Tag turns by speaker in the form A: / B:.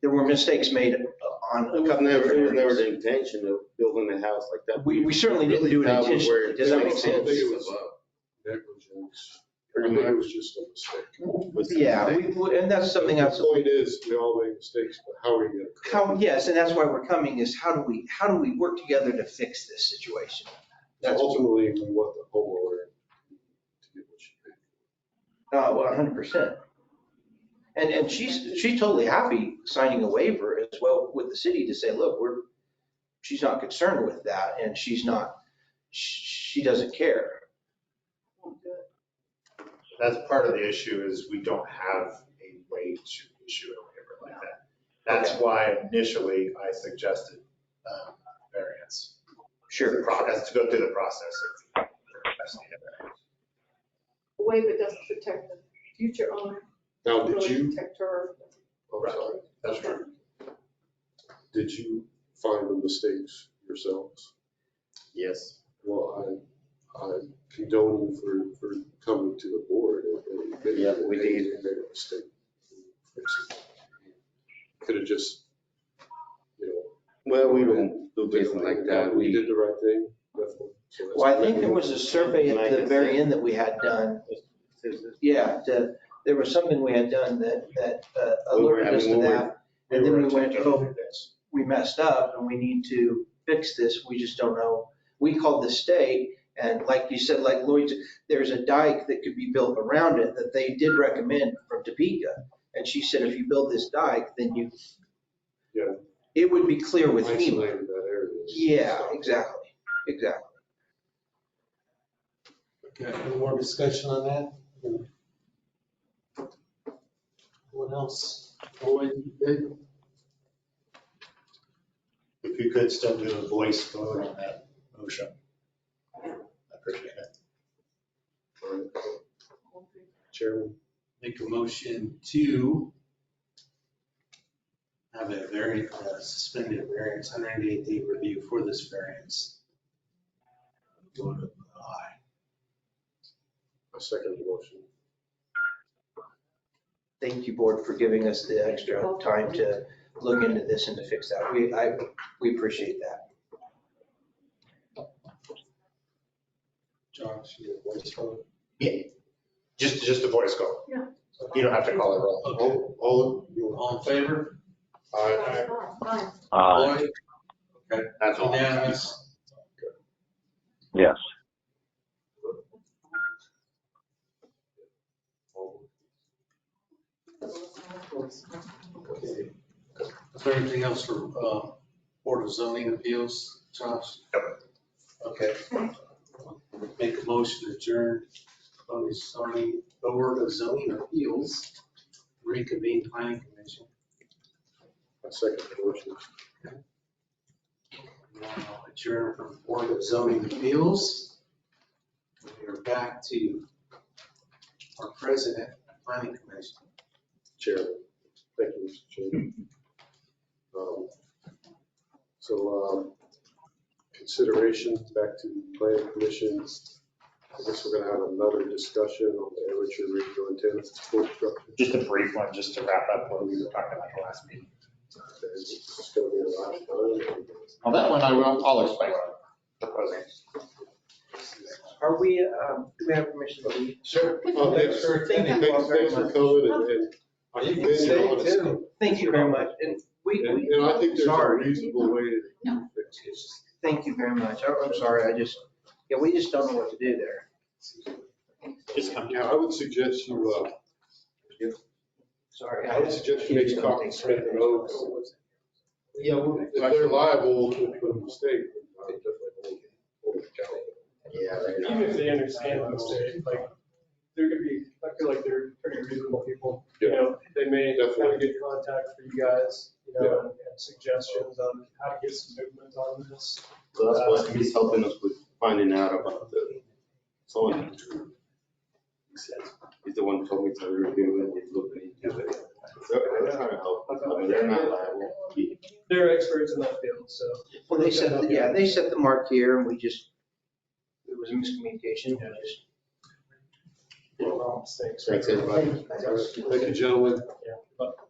A: there were mistakes made on
B: It
A: a
B: was
A: couple of
B: never, it was never
A: areas.
B: the intention of building a house like that.
A: We, we certainly didn't do it
B: That was
A: intentionally.
B: where it
A: Does that make
B: failed.
A: sense?
C: negligence. I
B: Pretty
C: think it
B: much.
C: was just a mistake.
B: was the
A: Yeah,
B: mistake.
A: we, we- and that's something else.
C: The point is, we all make mistakes, but how are you gonna?
A: How, yes, and that's why we're coming is how do we, how do we work together to fix this situation?
C: correct?
A: That's, oh,
C: Ultimately, we want the homeowner to get what she paid.
A: well, hundred percent. And, and she's, she's totally happy signing a waiver as well with the city to say, look, we're, she's not concerned with that and she's not, she she doesn't care.
D: That's part of the issue is we don't have a way to issue a waiver like that. That's why initially I suggested um, variance.
A: Sure.
D: Process, to go through the process of requesting a variance.
E: The waiver doesn't protect the future owner,
C: Now,
E: it
C: did
E: really
C: you,
E: protect her.
C: I'm sorry,
D: That's true.
C: did you find the mistakes yourselves?
B: Yes.
C: Well, I, I condone you for, for coming to the board. and- and-
B: Yeah, we did.
C: and Made a mistake. Could have just, you know,
B: Well, we don't do business like that.
C: We
B: We,
C: did the right thing, definitely. So that's-
A: Well, I think there was a survey at the very end that we had done Yeah, the, there was something we had done that, that uh,
B: We were
A: alerted us to
B: having- we were-
A: that. And then we went,
D: attempting
A: oh,
D: to do this.
A: we messed up and we need to fix this. We just don't know. We called the state and like you said, like Lloyd's, there's a dike that could be built around it that they did recommend from Topeka. And she said, if you build this dike, then you,
C: Yeah.
A: it would be clear with FEMA.
C: Isolated that area.
A: Yeah, exactly, exactly.
F: Okay, any more discussion on that? What else?
D: If you could still do a voice vote on that motion. I appreciate it.
C: Chairman,
F: Make a motion to have a very suspended variance, 188 day review for this variance. Vote of aye.
C: I second the motion.
A: Thank you, board, for giving us the extra time to look into this and to fix that. We, I, we appreciate that.
F: Josh, you have voice vote.
D: Yeah, just, just a voice call.
E: Yeah.
D: You don't have to call it roll.
F: Okay,
C: All,
D: oh,
C: all, you,
F: all in favor?
C: I,
E: Fine.
F: Aye. Okay,
B: that's all.
F: unanimous.
G: Yes.
F: Is there anything else for uh, Board of Zoning Appeals, Josh? Okay. Make a motion to adjourn Board of Zoning, Board of Zoning Appeals, reconvene planning commission.
C: I second the motion.
F: Now Adjourn from Board of Zoning Appeals. We are back to our president, planning commission.
C: Chairman, thank you, Mr. Chairman. Um, So, um, consideration back to the plan commission. I guess we're gonna have another discussion on the amateur regional antenna support structure.
D: Just a brief one, just to wrap up what we were talking about the last meeting.
C: It's gonna be a last time.
D: On that one, I will, I'll explain what I'm proposing.
A: Are we, um, do we have permission to leave?
C: Sure. Oh, thanks for,
A: Thank you
C: thanks,
A: all very
C: thanks for
A: much.
C: coming and, and you've been here on a
F: Stay tuned.
A: Thank you very much. And we,
C: And,
A: we,
C: and I think there's a
A: Sorry.
C: reasonable way to
E: No.
C: fix it.
A: thank you very much. I- I'm sorry, I just, yeah, we just don't know what to do there.
D: Just come
C: Yeah, I would suggest you, uh,
A: Sorry.
C: I would suggest you maybe talk to Smith and Oaks. Yeah, well, if they're liable for a mistake, I would definitely hold, hold it accountable.
B: Yeah, they're not.
H: Even if they understand the mistake, like, they're gonna be, I feel like they're pretty reasonable people. You
C: Yeah,
H: know, they may have
C: Definitely.
H: a good contact for you guys, you know, and and suggestions on how to get some movement on this.
B: So that's what he's helping us with finding out about the, someone. He says, He's the one who told me to review it, he's looking into it. So they're trying to help, I mean, they're not liable. He-
H: They're experts in that field, so.
A: Well, they set, yeah, they set the mark here and we just, it was a miscommunication. We just-
H: Wrong mistakes.
B: Thanks, everybody.
C: Thank you, gentlemen.
H: Yeah, but-